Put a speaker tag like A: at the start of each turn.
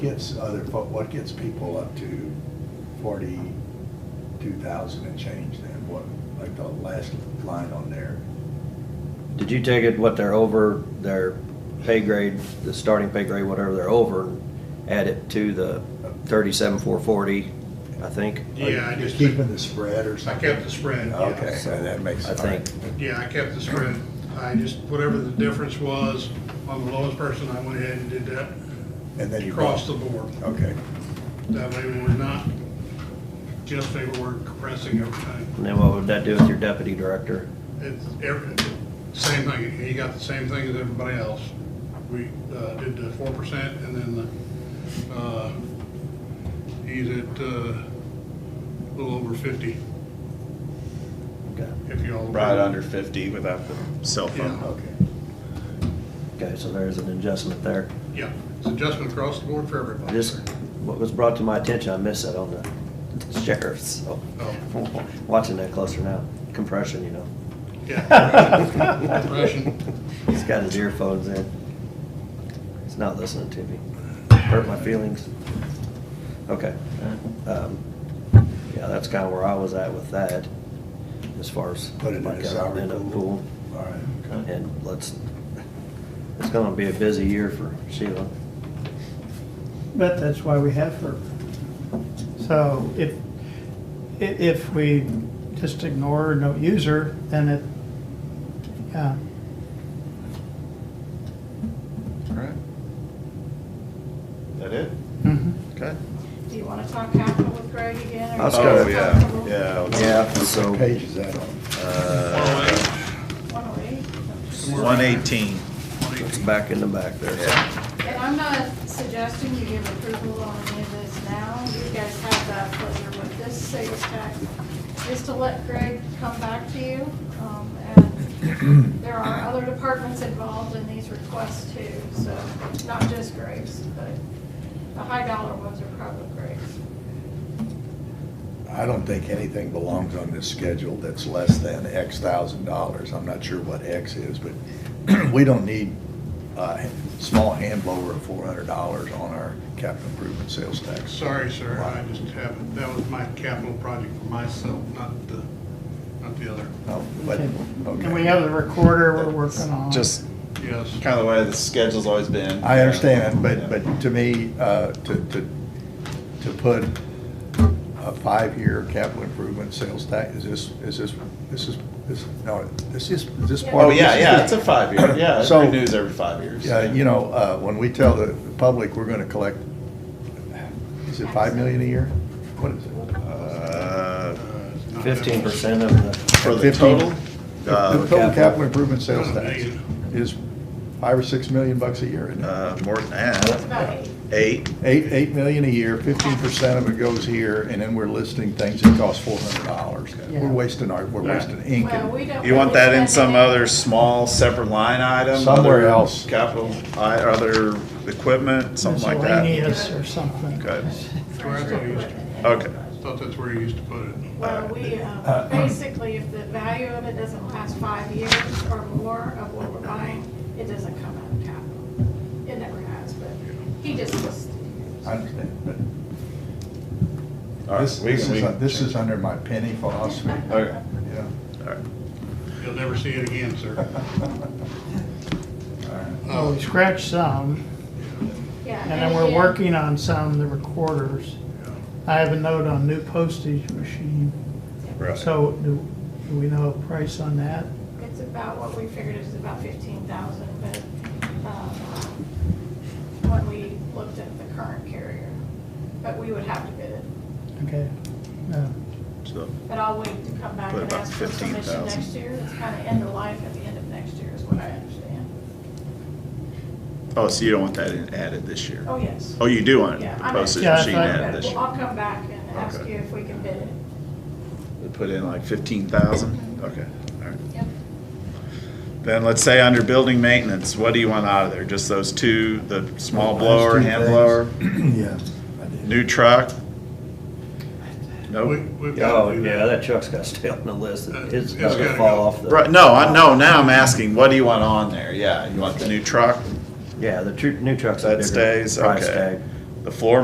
A: gets other, fo- what gets people up to forty-two thousand and change then? What, like the last line on there?
B: Did you take it what they're over, their pay grade, the starting pay grade, whatever they're over, and add it to the thirty-seven, four forty, I think?
A: Are you
C: Yeah, I
A: Just
C: just,
A: keeping the spread or
C: I
A: something?
C: kept the spread,
A: Okay,
C: yeah.
A: so that makes.
B: I think.
C: Yeah, I kept the spread. I just, whatever the difference was on the lowest person, I went ahead and did that
A: And then you.
C: across the board.
A: Okay,
C: That way we're not just paperwork compressing everything.
B: And then what would that do with your deputy director?
C: It's every, same thing, he got the same thing as everybody else. We, uh, did the four percent and then the, uh, he's at, uh, a little over fifty,
B: Okay,
C: if you all.
D: Right under fifty without the cell phone.
A: okay.
B: okay, so there's an adjustment there.
C: Yeah, it's adjustment across the board for everybody.
B: This, what was brought to my attention, I missed that on the sheriff's, so,
C: Oh.
B: watching that closer now, compression, you know.
C: Yeah. Russian.
B: He's got his earphones in. He's not listening to me. Hurt my feelings. Okay. Um, Yeah, that's kind of where I was at with that, as far as.
A: Put it in
B: my
A: a salary
B: government and
A: pool. All right,
B: pool. And let's, it's gonna be a busy year for Sheila.
E: But that's why we have her. So if, i- if we just ignore her, and don't use her, then it, yeah,
D: All right. That it?
E: mhm.
D: Okay.
F: Do you want to talk capital with Greg again? or
B: Let's
F: you
B: go.
F: wanna
D: Oh,
F: talk
D: yeah,
F: capital?
D: yeah.
B: Yeah, so,
A: what page is that on?
D: Uh,
F: 108.
D: one eighteen.
B: it's back in the back there.
D: Yeah.
F: And I'm not suggesting you give approval on any of this now. You guys have that pleasure with this sales tax. Just to let Greg come back to you. um, And there are other departments involved in these requests too, so not just Greg's, but the high dollar ones are probably Greg's.
A: I don't think anything belongs on this schedule that's less than X thousand dollars. I'm not sure what X is, but we don't need a small hand blower of four hundred dollars on our capital improvement sales tax.
C: Sorry, sir, I just haven't, that was my capital project for myself, not the, not the other.
A: No, but, okay.
E: And we have the recorder we're working on.
D: Just
C: Yes. Uh,
D: kind of the way the schedule's always been.
A: I understand, but,
D: Yeah.
A: but to me, uh, to, to, to put a five-year capital improvement sales tax, is this, is this, this is, this, no, this is, is this part
D: Oh,
A: of
D: yeah,
A: this?
D: yeah, it's a five-year, yeah, it
A: So-
D: renews every five years.
A: Yeah, you know, uh, when we tell the public we're gonna collect, is it five million a year? What is it?
D: Uh,
B: Fifteen percent of the,
D: For the
A: 15?
D: total?
A: The
D: Uh,
A: total capital improvement sales
C: Not a
A: tax
C: million.
A: is five or six million bucks a year, isn't it?
D: uh, more than
F: It's
D: that,
F: about eight.
D: eight,
A: Eight, eight million a year, fifteen percent of it goes here, and then we're listing things that cost four hundred dollars. We're
E: Yeah.
A: wasting our, we're wasting ink
F: Well,
A: and
F: we don't
D: You want
F: really
D: that in
F: spend
D: some
F: it.
D: other small separate line item?
A: Somewhere
D: other
A: else.
D: Capital, I- other equipment, something like that?
E: Miscellaneous or something.
D: Good. Okay.
C: Thought that's where you used to put it.
F: Well, we, uh, basically, if the value of it doesn't last five years or more of what we're buying, it doesn't come out of capital. It never has, but he just listed it.
A: I understand,
D: All
A: but
D: right,
A: this,
D: we
A: this
D: can- we
A: is, uh,
D: can
A: this
D: change.
A: is uh, under my penny philosophy.
D: Okay,
A: Yeah.
D: all right.
C: You'll never see it again, sir.
A: All right.
E: Well, we scratched some,
F: Yeah.
E: and then we're
F: again,
E: working on some, the recorders. I have a note on new postage machine. So do, do we know a price on that?
F: It's about what we figured is about fifteen thousand, but, um, when we looked at the current carrier, but we would have to bid it.
E: Okay. No.
D: So,
F: But I'll wait to come back
D: Put
F: and
D: about
F: ask for permission
D: 15,000.
F: next year. It's kind of end of life at the end of next year is what I understand.
D: oh, so you don't want that in- added this year?
F: Oh, yes.
D: Oh, you do want
F: Yeah,
D: it,
F: I'm-
D: postage
E: Yeah, I
D: machine
E: thought-
D: added this
F: Okay,
D: year?
F: well, I'll come back and ask
D: Okay.
F: you if we can bid it.
D: We Put in like fifteen thousand? Okay, all right.
F: Yep.
D: Then let's say under building maintenance, what do you want out of there? Just those two, the small blower,
A: Those two
D: hand
A: things.
D: blower,
A: Yeah, I did.
D: new truck? Nope.
C: We- we've gotta
B: oh,
C: do
B: yeah, that truck's got to stay on the list. It's
C: It's
B: got to
C: gotta
B: fall
C: go.
B: off the.
D: Right, no, I, no, now I'm asking, what do you want on there? Yeah, you want the new truck?
B: Yeah, the tru- new truck's a
D: That
B: bigger
D: stays,
B: price
D: okay.
B: tag.
D: The floor